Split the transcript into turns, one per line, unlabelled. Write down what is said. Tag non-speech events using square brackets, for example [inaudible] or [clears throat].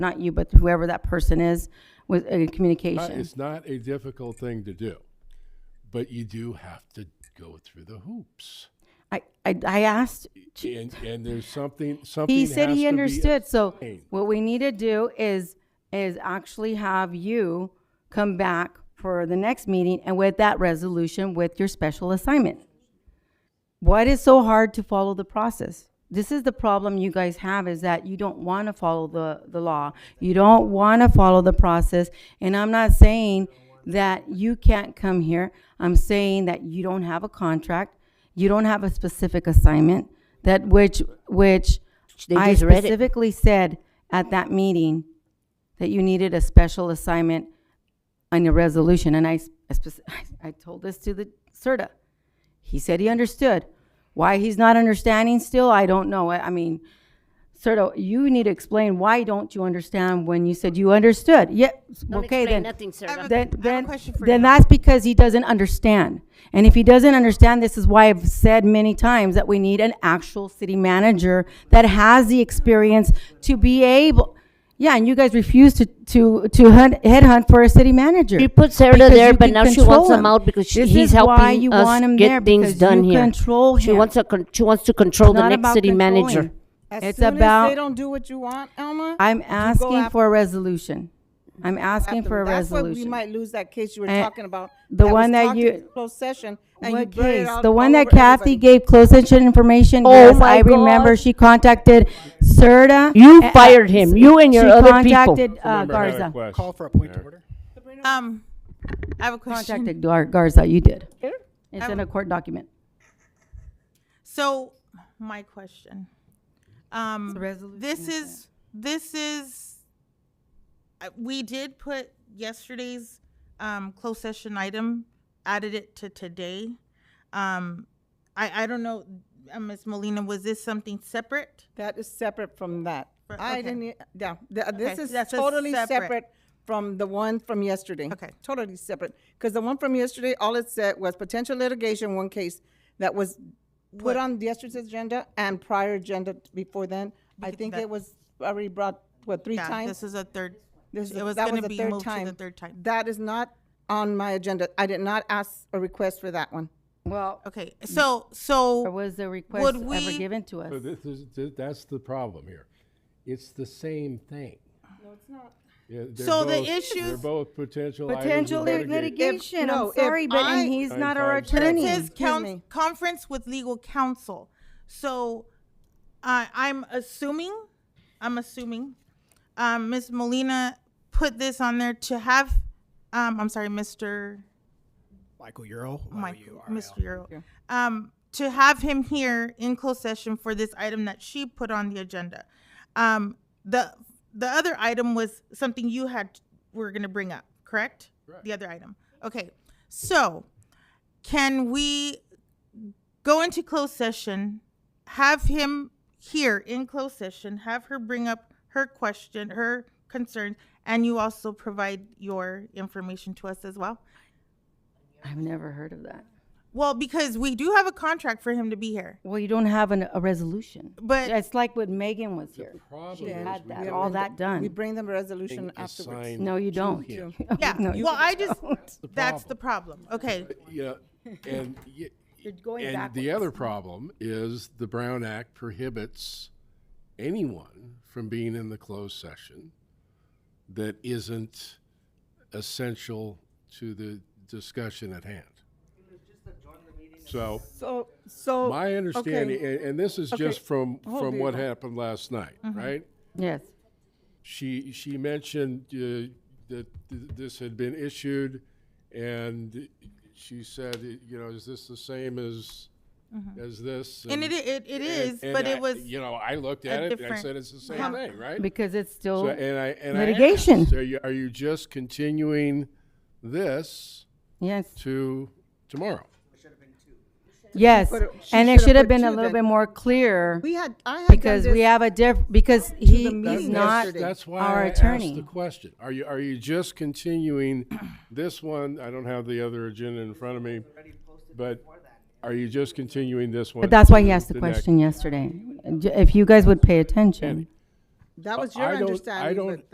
not you, but whoever that person is, with uh,
Uh,
communication.
It's not a difficult thing to do, but you do have to go through the hoops.
I, I, I asked,
And, and there's something, something
he said
has
he
to be
understood, so
explained.
what we need to do is, is actually have you come back for the next meeting and with that resolution with your special assignment. Why it is so hard to follow the process? This is the problem you guys have is that you don't want to follow the, the law. You don't want to follow the process. And I'm not saying that you can't come here. I'm saying that you don't have a contract. You don't have a specific assignment that which, which
They
I
just read it.
specifically said at that meeting that you needed a special assignment on your resolution. And I, s- I spec- [laughs] I told this to the CERTA. He said he understood. Why he's not understanding still, I don't know. I I mean, Serto, you need to explain why don't you understand when you said you understood? Yeah,
Don't
okay
explain
then.
nothing, sir.
have a-
Then,
I have a
then,
question for
then
you.
that's because he doesn't understand. And if he doesn't understand, this is why I've said many times that we need an actual city manager that has the experience to be able, yeah, and you guys refuse to, to, to hunt, headhunt for a city manager.
She put Sarah
because
there,
you
but
can
now she
control
wants him
him.
out because she-
This
he's
is why
helping
you
us
want him
get
there,
things
because
done
you
here.
control
She
him.
wants to, con- she wants to control the
Not
next
about
city manager.
controlling.
As
It's
soon as
about-
they don't do what you want, Elma.
I'm
you go
asking
after
for a resolution. I'm asking
them.
for a
That's what we
resolution.
might lose that case you were
And
talking about.
the
was
one that
talked
you-
in Closed session. and you
What
blurted
case?
out
The one
all
that
over
Kathy
everybody.
gave closed session information.
Oh
Yes,
my
I remember.
God.
She contacted Serta.
You
a- a-
fired him, you and your
she
other people.
contacted, uh,
Remember, I had a
Garza.
question
Call for a point
there.
of order.
Um, I have a question.
Contacted Gar- Garza, you did. It's in a court document.
So, my question. Um,
a resolution,
this
isn't
is, this is, I- we did put yesterday's, um, closed session item, added it to today. Um, I, I don't know, uh, Ms. Molina, was this something separate?
That is separate from that.
For-
I
okay.
didn't, e- yeah, th- this
Okay,
is
that's a
totally
separate.
separate from the one from yesterday.
Okay.
Totally separate, because the one from yesterday, all it said was potential litigation, one case that was put on yesterday's agenda and prior agenda before then. I think
that-
it was already brought, what, three
Yeah, this
times?
is a third,
This is-
it was
that
gonna
a
be
third
moved to the third time.
That is not on my agenda. I did not ask a request for that one.
Well,
Okay, so, so.
or was the request
would
ever
we-
given to us?
So this is, th- that's the problem here. It's the same thing. No, it's not.
So the issues-
They're both potential items of
Potential lit-
litigation.
litigation,
no,
I'm
if
sorry, but,
I-
and he's
Nine
not our
five seven.
But
attorney.
it says
Excuse
coun-
me.
conference with legal counsel. So I I'm assuming, I'm assuming, um, Ms. Molina put this on there to have, um, I'm sorry, Mr.
Michael Euro.
Michael, Mr. Earl, um, to have him here in closed session for this item that she put on the agenda. Um, the the other item was something you had were going to bring up, correct? The other item. Okay. So, can we go into closed session, have him here in closed session, have her bring up her question, her concerns, and you also provide your information to us as well?
I've never heard of that.
Well, because we do have a contract for him to be here.
Well, you don't have an, a resolution.
But-
It's like when Megan was here.
Problem
She
is
had
we
that,
don't
all that
We
done.
bring them a
think
resolution afterwards.
assign-
No, you don't.
him.
Yeah.
[laughs] No, you
well, I just
don't.
[laughs]
that's the problem. Okay.
Yeah, and, y-
You're going
and the other problem is the Brown Act prohibits anyone from being in the closed session that isn't essential to the discussion at hand. So.
So, so.
My
Oh, okay.
understanding, and, and this is just from,
Hold
from
it.
what happened last night, right?
Yes.
She, she mentioned uh, that th- this had been issued, and she said, you know, is this the same as, as this?
Mm-hmm. And it it, it is,
and- and
but
I-
it was
You know, I looked at it, and I
different-
said, it's the same
Yeah.
thing, right?
Because it's
So,
still,
and I, and I
litigation.
asked, Are you, are you just continuing this
yes,
to tomorrow?
yes.
put it- she
And it
should've
should have
put
been a
two
little bit
then.
more clear
We had, I had done
because we
this-
have a diff, because he is
meeting
not
yesterday.
That's why
our
I asked the
attorney.
question. Are you, are you just continuing [clears throat] this one? I don't have the other agenda in front of me, but are you just continuing this one?
But that's why he asked the
to next?
question yesterday. If you guys would pay attention.
That was
I
your
don't- I
understanding,
don't-
but